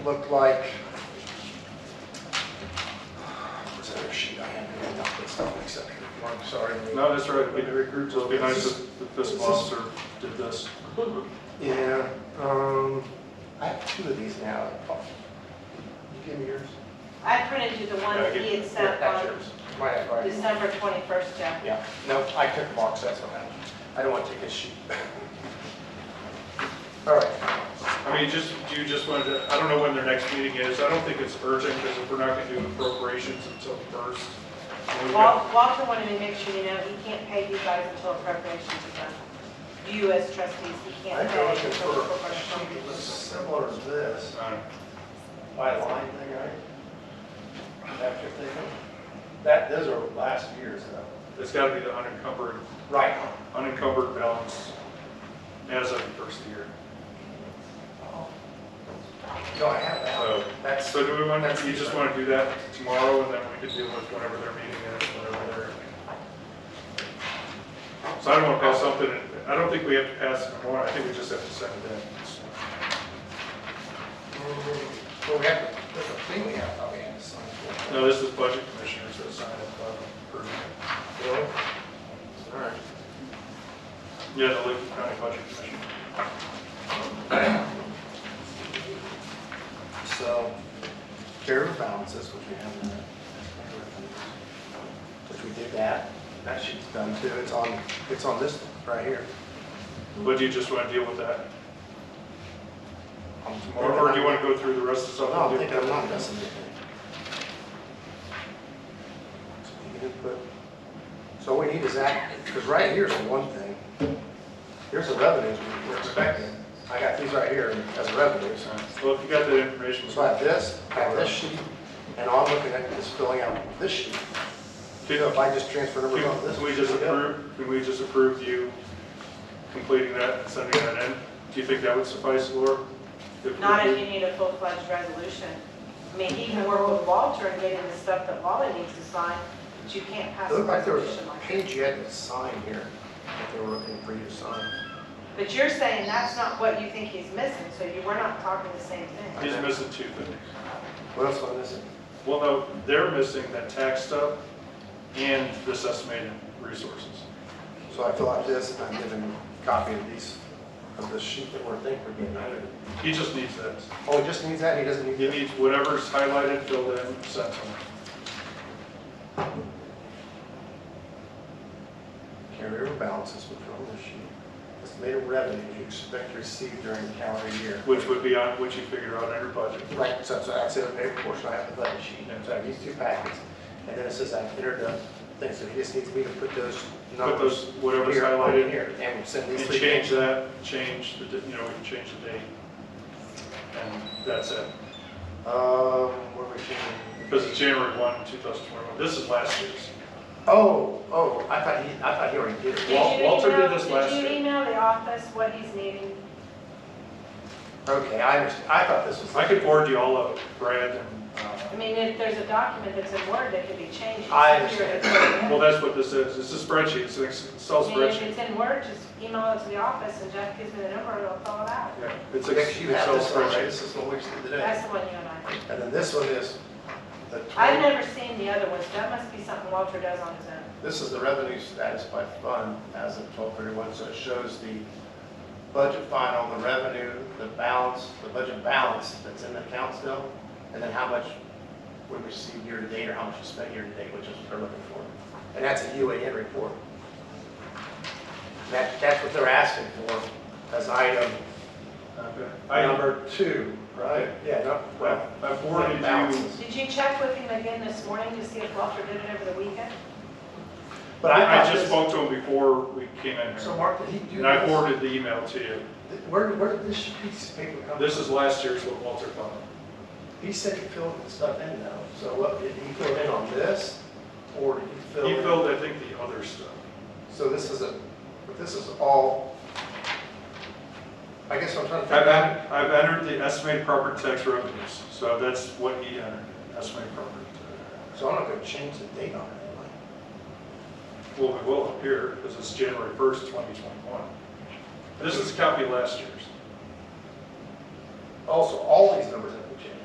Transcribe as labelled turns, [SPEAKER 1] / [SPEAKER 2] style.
[SPEAKER 1] looked like, was there a sheet I had? I don't think so, except for- I'm sorry.
[SPEAKER 2] No, that's right, we regrouped, it'd be nice if the fiscal officer did this.
[SPEAKER 1] Yeah, um, I have two of these now. Oh, You give me yours?
[SPEAKER 3] I printed you the one
[SPEAKER 2] Yeah, I
[SPEAKER 3] that
[SPEAKER 2] get-
[SPEAKER 3] he had
[SPEAKER 1] Yeah,
[SPEAKER 3] sent
[SPEAKER 4] um,
[SPEAKER 1] that's
[SPEAKER 3] on
[SPEAKER 1] yours. Mine, I brought.
[SPEAKER 3] December 21st, Jeff.
[SPEAKER 1] Yeah, no, I took Mark's, that's what happened. I don't want to take his sheet. All right,
[SPEAKER 2] I mean, just, do you just want to, I don't know when their next meeting is, I don't think it's urgent, because if we're not going to do appropriations until the first. we've got-
[SPEAKER 3] Wal- Walter wanted me to make sure you know, he can't pay you guys until appropriations are done. You as trustees, he
[SPEAKER 4] I go
[SPEAKER 3] can't pay
[SPEAKER 4] looking
[SPEAKER 3] until
[SPEAKER 4] for a sheet
[SPEAKER 3] appropriations.
[SPEAKER 4] that's similar to this,
[SPEAKER 2] Uh,
[SPEAKER 4] by line thing, right? After thing, that, those are last year's though.
[SPEAKER 2] It's got to be the unencumbered,
[SPEAKER 4] Right.
[SPEAKER 2] unencumbered balance as of the first of the year.
[SPEAKER 1] no, I have that.
[SPEAKER 2] So-
[SPEAKER 1] That's,
[SPEAKER 2] So do we want, you just want to do that tomorrow, and then we can deal with whenever their meeting is, whenever they're. So I don't want to pass something, I don't think we have to pass it tomorrow, I think we just have to send it in.
[SPEAKER 1] well, we have, there's a thing we have, probably have to sign for.
[SPEAKER 2] No, this is budget commissioners that sign up uh, for,
[SPEAKER 1] Really? All right.
[SPEAKER 2] yeah, the Lincoln County Budget Commission.
[SPEAKER 1] So, carry over balances, which we have, in the- which we did that, that sheet's done too, it's on, it's on this right here.
[SPEAKER 2] But do you just want to deal with that tomorrow, or do you want to go through the rest of
[SPEAKER 1] No,
[SPEAKER 2] stuff?
[SPEAKER 1] I think I'm not missing anything. So we can put- So what we need is that, because right here's the one thing, here's the revenues we we're expecting, I got these right here as revenues.
[SPEAKER 2] Well, if you got that information,
[SPEAKER 1] So I have this, I have this sheet, and all I'm looking at is filling out this sheet. So
[SPEAKER 2] can
[SPEAKER 1] if I just transfer numbers on this.
[SPEAKER 2] can we just approve, can we just approve you completing that and sending that in? Do you think that would suffice, Laura? If we-
[SPEAKER 3] Not if you need a full-fledged resolution. I mean, he can work with Walter and get him the stuff that Wally needs to sign, but you can't pass
[SPEAKER 1] It
[SPEAKER 3] a
[SPEAKER 1] looked like there was
[SPEAKER 3] resolution
[SPEAKER 1] a
[SPEAKER 3] like that.
[SPEAKER 1] page you had to sign here, that they were looking for you to sign.
[SPEAKER 3] But you're saying that's not what you think he's missing, so you, we're not talking the same thing.
[SPEAKER 2] He's missing two things.
[SPEAKER 1] What else am I missing?
[SPEAKER 2] Well, no, they're missing that tax stuff and this estimated resources.
[SPEAKER 1] So I fill out this, and I'm given a copy of these, of the sheet that we're thinking we're getting out of.
[SPEAKER 2] He just needs that.
[SPEAKER 1] Oh, he just needs that, he doesn't need
[SPEAKER 2] He
[SPEAKER 1] the
[SPEAKER 2] needs whatever's highlighted, filled in, sent to him.
[SPEAKER 1] carryover balances, which are on the sheet. Estimated revenue you expect to receive during the calendar year.
[SPEAKER 2] Which would be on, which you figure out under budget.
[SPEAKER 1] Right, so so that's the other paper portion, I have the budget sheet, so I have these two packets. And then it says I've entered the thing, so he just needs me to put those
[SPEAKER 2] Put
[SPEAKER 1] numbers
[SPEAKER 2] those, whatever's
[SPEAKER 1] here,
[SPEAKER 2] highlighted
[SPEAKER 1] in
[SPEAKER 2] here,
[SPEAKER 1] here, and we'll send these
[SPEAKER 2] and
[SPEAKER 1] three.
[SPEAKER 2] change that, change the, di- you know, we can change the date. And that's it.
[SPEAKER 1] Um, where we changing?
[SPEAKER 2] Because it's January 1, 2021. This is last year's.
[SPEAKER 1] Oh, oh, I thought he, I thought he already did it.
[SPEAKER 2] Wal-
[SPEAKER 3] Did you
[SPEAKER 2] Walter did
[SPEAKER 3] email-
[SPEAKER 2] this last year.
[SPEAKER 3] Did you email the office what he's needing?
[SPEAKER 1] Okay, I understand, I thought this was.
[SPEAKER 2] I could forward you all of it, Brad, and,
[SPEAKER 3] I
[SPEAKER 2] uh,
[SPEAKER 3] mean, if there's a document that's in Word that could be changed. it's
[SPEAKER 1] I
[SPEAKER 3] easier to-
[SPEAKER 2] well, that's what this is. It's a spreadsheet, it's an Excel
[SPEAKER 3] I mean, if
[SPEAKER 2] spreadsheet.
[SPEAKER 3] it's in Word, just email it to the office and Jeff gives me the number and I'll fill it out.
[SPEAKER 2] Yeah, It's an
[SPEAKER 1] Nick, you have
[SPEAKER 2] Excel
[SPEAKER 1] this one, right?
[SPEAKER 2] spreadsheet.
[SPEAKER 1] This is what we did today.
[SPEAKER 3] That's the one you and I.
[SPEAKER 1] And then this one is the
[SPEAKER 3] I've
[SPEAKER 1] 20,
[SPEAKER 3] never seen the other ones. That must be something Walter does on his own.
[SPEAKER 1] this is the revenue status by fund as of 12/31, so it shows the budget final, the revenue, the balance, the budget balance that's in the account still, and then how much we received year-to-date or how much we spent year-to-date, which is what they're looking for. And that's a UAN report. That, that's what they're asking for as item
[SPEAKER 2] Okay. I,
[SPEAKER 1] number two, right? Yeah, no, well,
[SPEAKER 2] I forwarded you,
[SPEAKER 1] balances.
[SPEAKER 3] Did you check with him again this morning to see if Walter did it over the weekend?
[SPEAKER 1] But
[SPEAKER 2] I
[SPEAKER 1] I
[SPEAKER 2] I just
[SPEAKER 1] thought
[SPEAKER 2] spoke to him before we came in
[SPEAKER 1] this, so
[SPEAKER 2] here.
[SPEAKER 1] Mark, did he do this?
[SPEAKER 2] And I forwarded the email to you.
[SPEAKER 1] Where, where did this piece of paper come from?
[SPEAKER 2] This is last year's what Walter found.
[SPEAKER 1] He said he filled the stuff in though, so what, did he fill in on this? Or did he fill in?
[SPEAKER 2] He filled, I think, the other stuff.
[SPEAKER 1] So this is a, but this is all, I guess I'm trying to.
[SPEAKER 2] I've,
[SPEAKER 1] figure out-
[SPEAKER 2] en- I've entered the estimated property tax revenues, so that's what he entered, estimated property tax.
[SPEAKER 1] So I'm not gonna change the date on it, am
[SPEAKER 2] Well, we will up here, because it's January 1st, 2021. This is a copy of last year's.
[SPEAKER 1] I? Also, all these numbers in